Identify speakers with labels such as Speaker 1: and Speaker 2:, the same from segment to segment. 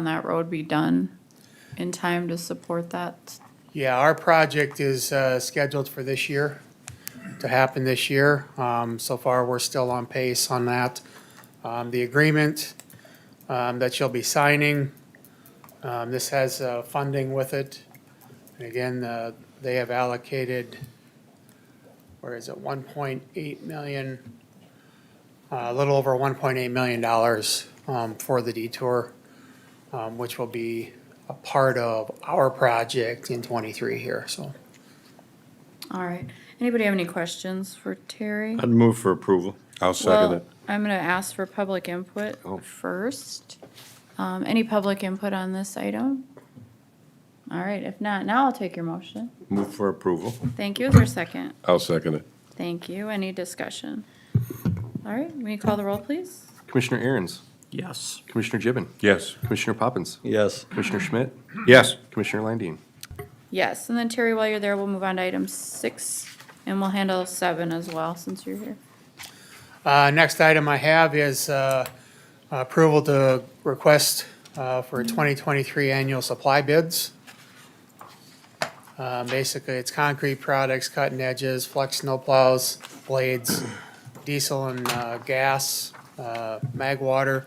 Speaker 1: on that road be done in time to support that?
Speaker 2: Yeah, our project is uh, scheduled for this year, to happen this year. Um, So far, we're still on pace on that. Um, The agreement um, that you'll be signing, um, this has uh, funding with it. And again, uh, they have allocated, where is it, 1.8 million, uh, a little over 1.8 million dollars um, for the detour, um, which will be a part of our project in twenty-three here, so.
Speaker 1: All right. Anybody have any questions for Terry?
Speaker 3: I'd move for approval.
Speaker 4: I'll
Speaker 1: Well,
Speaker 4: second it.
Speaker 1: I'm gonna ask for public input
Speaker 4: Oh.
Speaker 1: first. Um, any public input on this item? All right, if not, now I'll take your motion.
Speaker 4: Move for approval.
Speaker 1: Thank you. Is there a second?
Speaker 4: I'll second it.
Speaker 1: Thank you. Any discussion? All right, will you call the roll, please?
Speaker 5: Commissioner Aaron's,
Speaker 3: Yes.
Speaker 5: Commissioner Gibbon,
Speaker 4: Yes.
Speaker 5: Commissioner Poppins,
Speaker 3: Yes.
Speaker 5: Commissioner Schmidt,
Speaker 4: Yes.
Speaker 5: Commissioner Landine.
Speaker 1: Yes, and then Terry, while you're there, we'll move on to item six, and we'll handle seven as well, since you're here.
Speaker 2: Uh, next item I have is, uh, approval to request, uh, for twenty-twenty-three annual supply bids. Uh, basically, it's concrete products, cutting edges, flex snowplows, blades, diesel and, uh, gas, uh, mag water,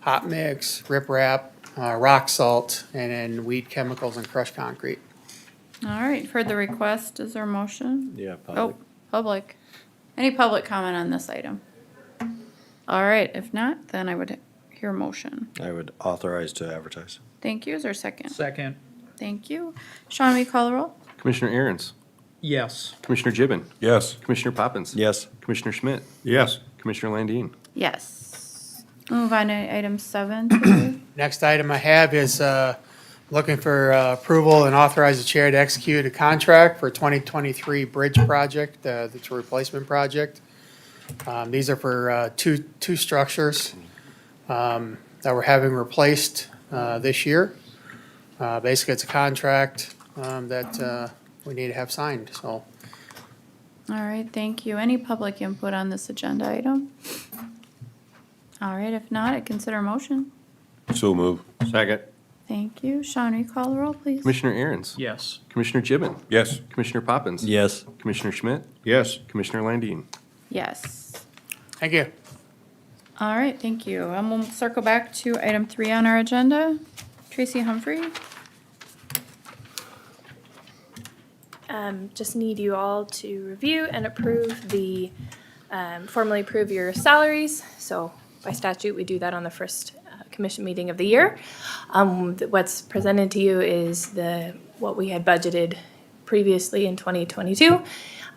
Speaker 2: hot mix, riprap, uh, rock salt, and then weed chemicals and crushed concrete.
Speaker 1: All right, heard the request. Is there a motion?
Speaker 3: Yeah.
Speaker 1: Oh, public. Any public comment on this item? All right, if not, then I would hear a motion.
Speaker 3: I would authorize to advertise.
Speaker 1: Thank you. Is there a second?
Speaker 6: Second,
Speaker 1: Thank you. Sean, will you call the roll?
Speaker 5: Commissioner Aaron's,
Speaker 6: yes.
Speaker 5: Commissioner Gibbon,
Speaker 4: Yes.
Speaker 5: Commissioner Poppins.
Speaker 3: Yes.
Speaker 5: Commissioner Schmidt,
Speaker 4: Yes.
Speaker 5: Commissioner Landine.
Speaker 1: Yes. Move on to item seven, Terry.
Speaker 2: Next item I have is uh, looking for uh, approval and authorize the chair to execute a contract for 2023 bridge project, uh, that's a replacement project. Um, These are for uh, two, two structures um, that we're having replaced uh, this year. Uh, Basically, it's a contract um, that uh, we need to have signed, so.
Speaker 1: All right, thank you. Any public input on this agenda item? All right, if not, I consider a motion.
Speaker 4: So move.
Speaker 5: Second.
Speaker 1: Thank you. Sean, will you call the roll, please?
Speaker 5: Commissioner Aaron's,
Speaker 6: Yes.
Speaker 5: Commissioner Gibbon,
Speaker 4: Yes.
Speaker 5: Commissioner Poppins.
Speaker 3: Yes.
Speaker 5: Commissioner Schmidt,
Speaker 4: Yes.
Speaker 5: Commissioner Landine.
Speaker 1: Yes.
Speaker 2: Thank you.
Speaker 1: All right, thank you. And we'll circle back to item three on our agenda. Tracy Humphrey?
Speaker 7: Um, just need you all to review and approve the, um, formally approve your salaries. So by statute, we do that on the first uh, commission meeting of the year. Um, th- what's presented to you is the, what we had budgeted previously in twenty twenty-two.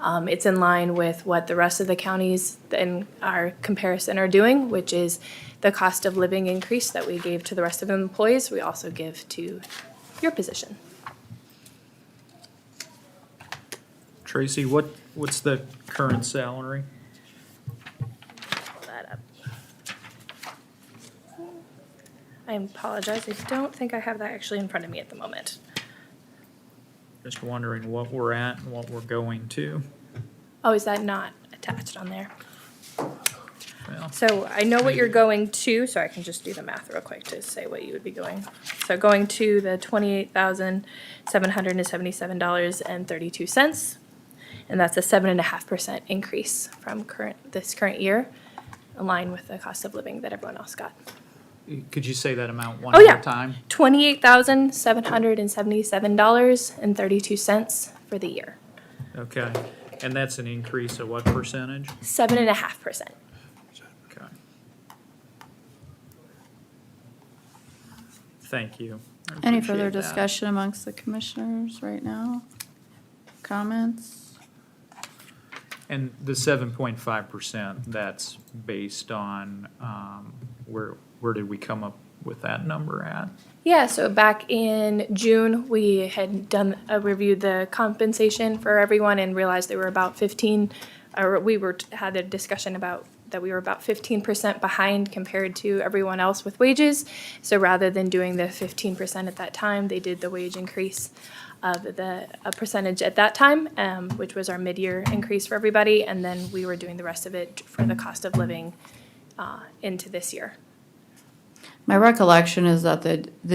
Speaker 7: Um, it's in line with what the rest of the counties in our comparison are doing, which is the cost of living increase that we gave to the rest of the employees, we also give to your position.
Speaker 6: Tracy, what, what's the current salary?
Speaker 7: pull that up. I apologize, I don't think I have that actually in front of me at the moment.
Speaker 6: Just wondering what we're at and what we're going to.
Speaker 7: Oh, is that not attached on there?
Speaker 6: Well,
Speaker 7: So I know what you're going to, so I can just do the math real quick to say what you would be going. So going to the twenty-eight thousand, seven hundred and seventy-seven dollars and thirty-two cents. And that's a seven and a half percent increase from current, this current year, aligned with the cost of living that everyone else got.
Speaker 6: could you say that amount one
Speaker 7: Oh, yeah.
Speaker 6: more time?
Speaker 7: twenty-eight thousand seven hundred and seventy-seven dollars and thirty-two cents for the year,
Speaker 6: Okay, and that's an increase of what percentage?
Speaker 7: seven and a half percent.
Speaker 6: Okay. Thank you. I
Speaker 1: Any further
Speaker 6: appreciate that.
Speaker 1: discussion amongst the commissioners right now? Comments?
Speaker 6: And the seven point five percent, that's based on, um, where, where did we come up with that number at?
Speaker 7: Yeah, so back in June, we had done, uh, reviewed the compensation for everyone and realized they were about fifteen, or we were, had a discussion about that we were about fifteen percent behind compared to everyone else with wages. So rather than doing the fifteen percent at that time, they did the wage increase of the, a percentage at that time, um, which was our mid-year increase for everybody, and then we were doing the rest of it for the cost of living, uh, into this year.
Speaker 1: My recollection is that the, the